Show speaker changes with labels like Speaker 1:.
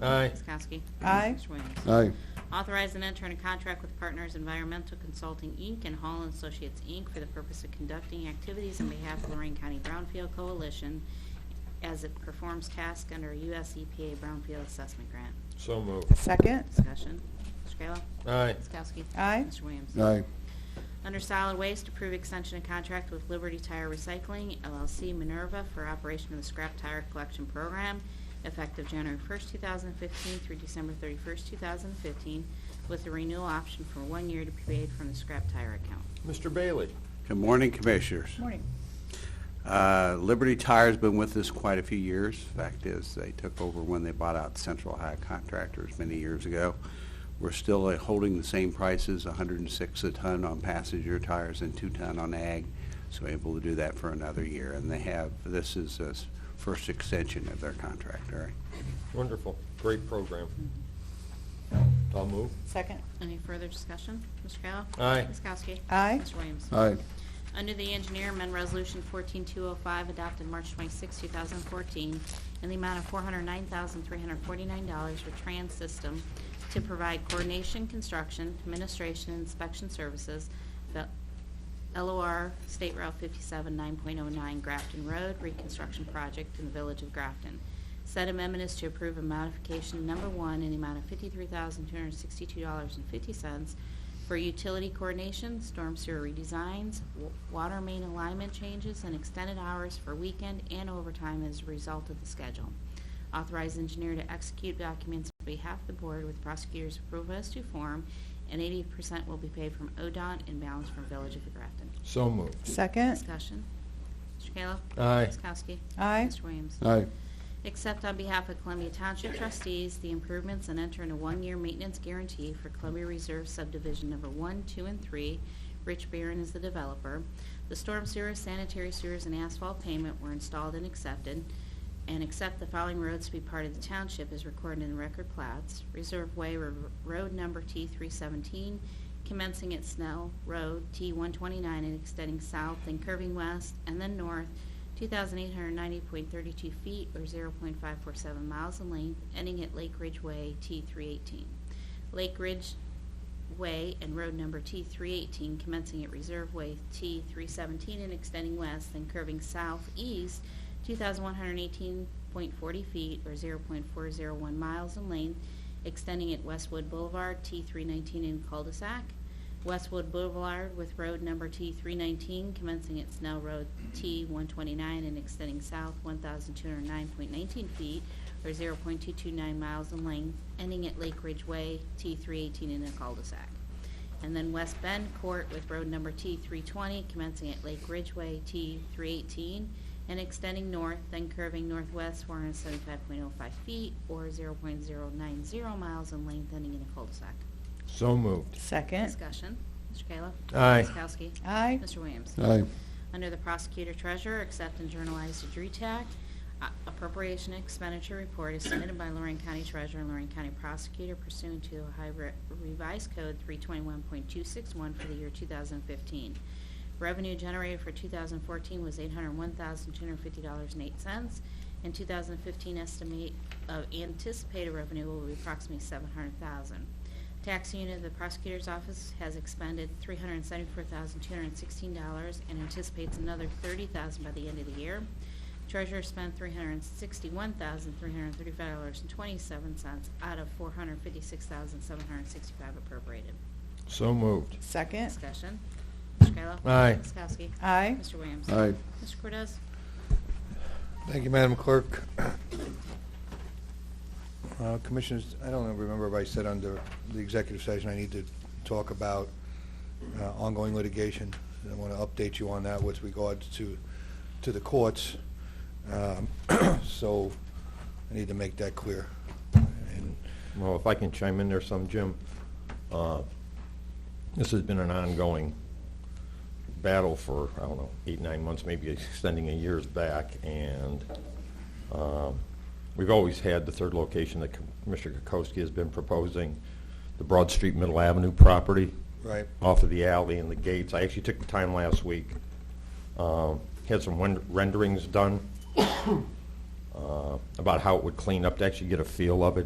Speaker 1: Aye.
Speaker 2: Ms. Kowski.
Speaker 3: Aye.
Speaker 2: Mr. Williams.
Speaker 4: aye,
Speaker 2: Authorize and enter in a contract with Partners Environmental Consulting, Inc. and Hall and Associates, Inc. for the purpose of conducting activities on behalf of Lorraine County Brownfield Coalition as it performs tasks under a U.S. EPA Brownfield Assessment Grant.
Speaker 1: So moved.
Speaker 3: Second.
Speaker 2: Discussion. Mr. Kayla.
Speaker 1: Aye.
Speaker 2: Ms. Kowski.
Speaker 3: Aye.
Speaker 2: Mr. Williams.
Speaker 4: aye,
Speaker 2: Under solid waste, approve extension of contract with Liberty Tire Recycling LLC Minerva for operation of the scrap tire collection program effective January 1st, 2015 through December 31st, 2015, with a renewal option for one year to be paid from the scrap tire account.
Speaker 1: Mr. Bailey?
Speaker 5: Good morning, Commissioners.
Speaker 3: Morning.
Speaker 5: Uh, Liberty Tire's been with us quite a few years. Fact is, they took over when they bought out Central High Contractors many years ago. We're still uh, holding the same prices, 106 a ton on passenger tires and 2 ton on ag, so able to do that for another year. And they have, this is the first extension of their contract, all right?
Speaker 1: Wonderful. Great program. I'll move.
Speaker 3: Second.
Speaker 2: Any further discussion? Mr. Kayla?
Speaker 1: Aye.
Speaker 2: Ms. Kowski?
Speaker 3: Aye.
Speaker 2: Mr. Williams?
Speaker 4: aye,
Speaker 2: Under the engineer, amend Resolution 14205 adopted March 26, 2014, in the amount of $409,349 for Trans System to provide coordination, construction, administration, and inspection services for LOR State Route 57 9.09 Grafton Road Reconstruction Project in the Village of Grafton. Said amendment is to approve a modification number one in the amount of $53,262.50 for utility coordination, storm sewer redesigns, wa- water main alignment changes, and extended hours for weekend and overtime as a result of the schedule. Authorize engineer to execute documents on behalf of the board with prosecutor's approval as to form, and 80% will be paid from ODOT and balance from Village of Grafton.
Speaker 1: So moved.
Speaker 3: Second.
Speaker 2: Discussion. Mr. Kayla?
Speaker 1: Aye.
Speaker 2: Ms. Kowski?
Speaker 3: Aye.
Speaker 2: Mr. Williams?
Speaker 4: aye,
Speaker 2: Accept on behalf of Columbia Township trustees the improvements and enter in a one-year maintenance guarantee for Columbia Reserve subdivision number one, two, and three. Rich Barron is the developer. The storm sewers, sanitary sewers, and asphalt payment were installed and accepted. And accept the following roads to be part of the township is recorded in the record plats. Reserve Way Ro- Road Number T three seventeen, commencing at Snell Road T one twenty-nine and extending south, then curving west, and then north 2,890.32 feet or 0.547 miles in length, ending at Lake Ridge Way T318. Lake Ridge Way and road number T318 commencing at Reserve Way T317 and extending west, then curving southeast 2,118.40 feet or 0.401 miles in length, extending at Westwood Boulevard T319 in cul-de-sac, Westwood Boulevard with road number T319 commencing at Snell Road T129 and extending south 1,209.19 feet or 0.229 miles in length, ending at Lake Ridge Way T318 in a cul-de-sac. And then West Bend Court with road number T320 commencing at Lake Ridgeway T318 and extending north, then curving northwest 475.05 feet or 0.090 miles in length, ending in a cul-de-sac.
Speaker 1: So moved.
Speaker 3: Second.
Speaker 2: Discussion. Mr. Kayla?
Speaker 1: Aye.
Speaker 2: Ms. Kowski?
Speaker 3: Aye.
Speaker 2: Mr. Williams?
Speaker 4: aye,
Speaker 2: Under the Prosecutor Treasurer, accept and journalize the DRETAC uh, appropriation expenditure report is submitted by Lorraine County Treasurer and Lorraine County Prosecutor pursuant to Ohio Re- Revised Code 321.261 for the year 2015. Revenue generated for 2014 was $801,250.08. In 2015, estimate of anticipated revenue will be approximately 700000 Tax unit of the prosecutor's office has expended $374,216 and anticipates another $30,000 by the end of the year. Treasurer spent $361,335.27 out of $456,765 appropriated.
Speaker 1: So moved.
Speaker 3: Second.
Speaker 2: Discussion. Mr. Kayla.
Speaker 1: Aye.
Speaker 2: Ms. Kowski.
Speaker 3: Aye.
Speaker 2: Mr. Williams.
Speaker 4: aye.
Speaker 2: Mr. Cordez.
Speaker 6: Thank you, Madam Clerk. Uh, Commissioners, I don't remember if I said under the executive session, I need to talk about uh, ongoing litigation. And I want to update you on that with regards to, to the courts. Um, So I need to make that clear. And
Speaker 1: Well, if I can chime in there some, Jim. uh, This has been an ongoing battle for, I don't know, eight, nine months, maybe extending a years back. And um, we've always had the third location that Commissioner Kokoski has been proposing, the Broad Street Middle Avenue property.
Speaker 6: Right.
Speaker 1: Off of the alley and the gates. I actually took the time last week, um, had some wen- renderings done uh, about how it would clean up to actually get a feel of it.